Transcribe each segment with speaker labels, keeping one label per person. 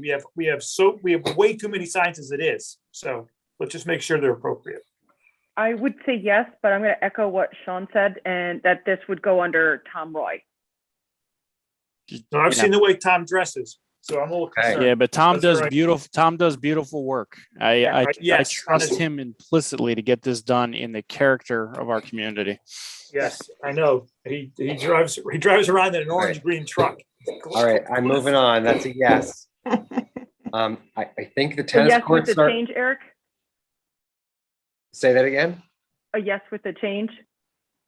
Speaker 1: We have, we have so, we have way too many signs as it is, so let's just make sure they're appropriate.
Speaker 2: I would say yes, but I'm going to echo what Sean said and that this would go under Tom Roy.
Speaker 1: Now, I've seen the way Tom dresses, so I'm a little
Speaker 3: Hey.
Speaker 1: concerned.
Speaker 4: Yeah, but Tom
Speaker 1: That's
Speaker 4: does
Speaker 1: right.
Speaker 4: beautiful. Tom does beautiful work. I I,
Speaker 1: right. Yes,
Speaker 4: I trust
Speaker 1: honestly.
Speaker 4: him implicitly to get this done in the character of our community.
Speaker 1: Yes, I know. He, he drives, he drives around in an orange green truck.
Speaker 3: All right, I'm moving on. That's a yes. Um, I, I think the
Speaker 2: A
Speaker 3: tennis
Speaker 2: yes with
Speaker 3: courts
Speaker 2: the
Speaker 3: are,
Speaker 2: change, Eric?
Speaker 3: say that again?
Speaker 2: A Uh, yes with the change?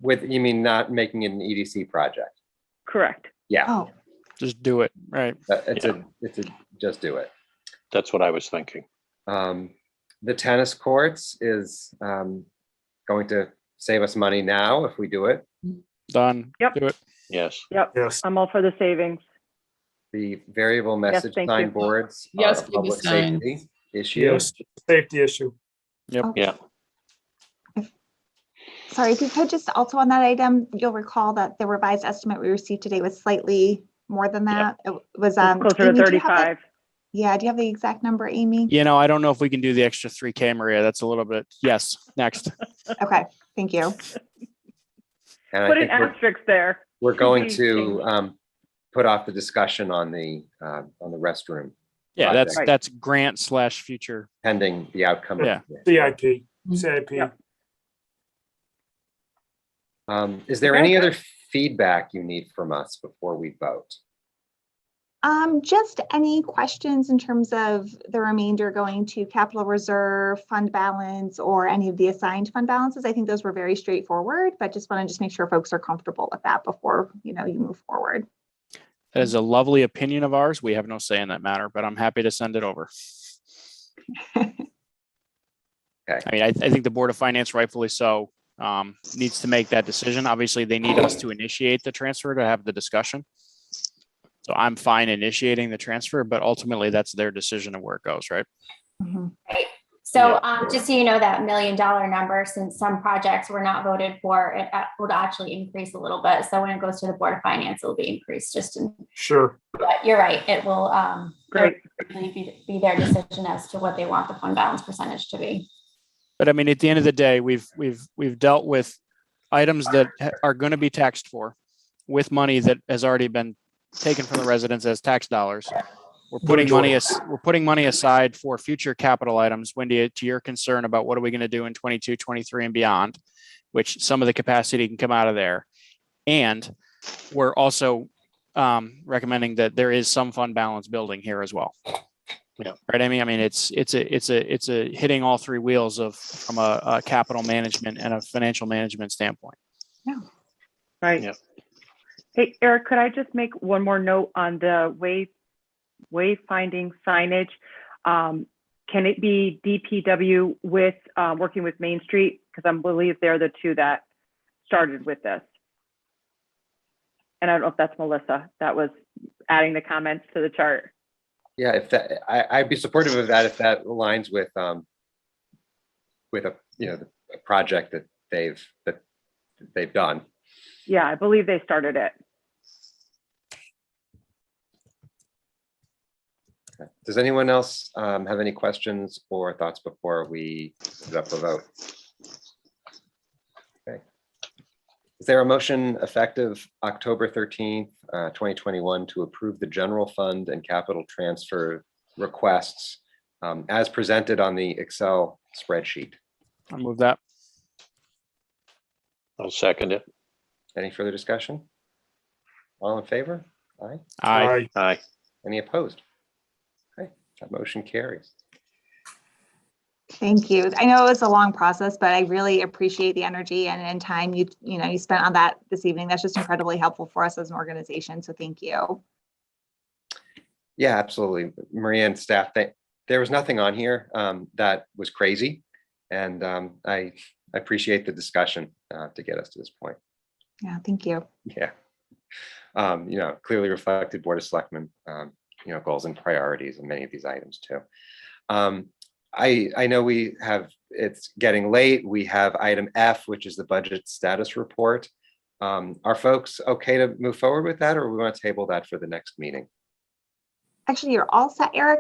Speaker 3: With, you mean not making it an EDC project?
Speaker 2: Correct.
Speaker 3: Yeah,
Speaker 5: Oh,
Speaker 4: Just do it. Right.
Speaker 3: that- it's a, it's a, just do it.
Speaker 6: That's what I was thinking.
Speaker 3: Um, the tennis courts is, um, going to save us money now if we do it.
Speaker 4: Done.
Speaker 2: Yep.
Speaker 4: Do it.
Speaker 6: Yes.
Speaker 2: Yep.
Speaker 1: Yes,
Speaker 2: I'm all for the savings.
Speaker 3: The variable message
Speaker 2: thank you.
Speaker 3: signboards are
Speaker 5: Yes,
Speaker 3: a
Speaker 5: big
Speaker 3: public
Speaker 5: signs.
Speaker 3: safety issue.
Speaker 1: yes, safety issue.
Speaker 6: Yeah.
Speaker 5: sorry, if you could just also on that item, you'll recall that the revised estimate we received today was slightly more than that. It was, um.
Speaker 2: It's closer to
Speaker 5: Amy, do you have that-
Speaker 2: 35.
Speaker 5: Yeah, do you have the exact number, Amy?
Speaker 4: You know, I don't know if we can do the extra 3K, Maria. That's a little bit. Yes. Next.
Speaker 5: Okay, thank you.
Speaker 3: And I
Speaker 2: Put an
Speaker 3: think we're,
Speaker 2: asterisk there.
Speaker 3: we're going
Speaker 2: Please
Speaker 3: to,
Speaker 2: change.
Speaker 3: um, put off the discussion on the, uh, on the restroom
Speaker 4: Yeah, that's
Speaker 2: Right.
Speaker 4: that's grant slash future.
Speaker 3: pending the outcome. of
Speaker 4: Yeah.
Speaker 3: the-
Speaker 1: CIP, CIP.
Speaker 2: Yep.
Speaker 3: Um, is there
Speaker 2: Okay.
Speaker 3: any other feedback you need from us before we vote?
Speaker 5: Um, just any questions in terms of the remainder going to capital reserve, fund balance, or any of the assigned fund balances? I think those were very straightforward, but just want to just make sure folks are comfortable with that before, you know, you move forward.
Speaker 4: That is a lovely opinion of ours. We have no say in that matter, but I'm happy to send it over. I mean, I, I think the Board of Finance rightfully so um, needs to make that decision. Obviously, they need us to initiate the transfer to have the discussion. So I'm fine initiating the transfer, but ultimately that's their decision of where it goes, right?
Speaker 5: Mhm.
Speaker 7: So um, just so you know, that million dollar number, since some projects were not voted for, it uh, would actually increase a little bit. So when it goes to the Board of Finance, it'll be increased just in,
Speaker 1: Sure.
Speaker 7: but you're right, it will um,
Speaker 2: Great.
Speaker 7: really be be their decision as to what they want the fund balance percentage to be.
Speaker 4: But I mean, at the end of the day, we've, we've, we've dealt with items that ha- are going to be taxed for with money that has already been taken from the residents as tax dollars. We're putting money, as we're putting money aside for future capital items. Wendy, to your concern about what are we going to do in 22, 23 and beyond, which some of the capacity can come out of there. And we're also um, recommending that there is some fund balance building here as well.
Speaker 6: Yeah.
Speaker 4: Right, Amy? I mean, it's, it's a, it's a, it's a hitting all three wheels of, from a, a capital management and a financial management standpoint.
Speaker 2: Right.
Speaker 6: Yep.
Speaker 2: Hey, Eric, could I just make one more note on the way, wayfinding signage? Um, Can it be DPW with, uh, working with Main Street? Because I believe they're the two that started with this. And I don't know if that's Melissa, that was adding the comments to the chart.
Speaker 3: Yeah, if that, I, I'd be supportive of that if that aligns with, um, with a, you know, a project that they've, that they've done.
Speaker 2: Yeah, I believe they started it.
Speaker 3: Does anyone else, um, have any questions or thoughts before we put up the vote? Okay. Is there a motion effective October thirteenth, uh, twenty twenty-one to approve the general fund and capital transfer requests um, as presented on the Excel spreadsheet?
Speaker 4: I'll move that.
Speaker 6: I'll second it.
Speaker 3: Any further discussion? All in favor? Aye.
Speaker 4: Aye.
Speaker 6: Aye.
Speaker 3: Any opposed? Okay, that motion carries.
Speaker 5: Thank you. I know it was a long process, but I really appreciate the energy and, and time you, you know, you spent on that this evening. That's just incredibly helpful for us as an organization. So thank you.
Speaker 3: Yeah, absolutely. Maria and staff, they, there was nothing on here um, that was crazy. And um, I I appreciate the discussion uh, to get us to this point.
Speaker 5: Yeah, thank you.
Speaker 3: Yeah. Um, You know, clearly reflected Board of Selectmen, um, you know, goals and priorities in many of these items too. Um, I, I know we have, it's getting late. We have item F, which is the budget status report. Um, Are folks okay to move forward with that or we want to table that for the next meeting?
Speaker 5: Actually, you're all set, Eric.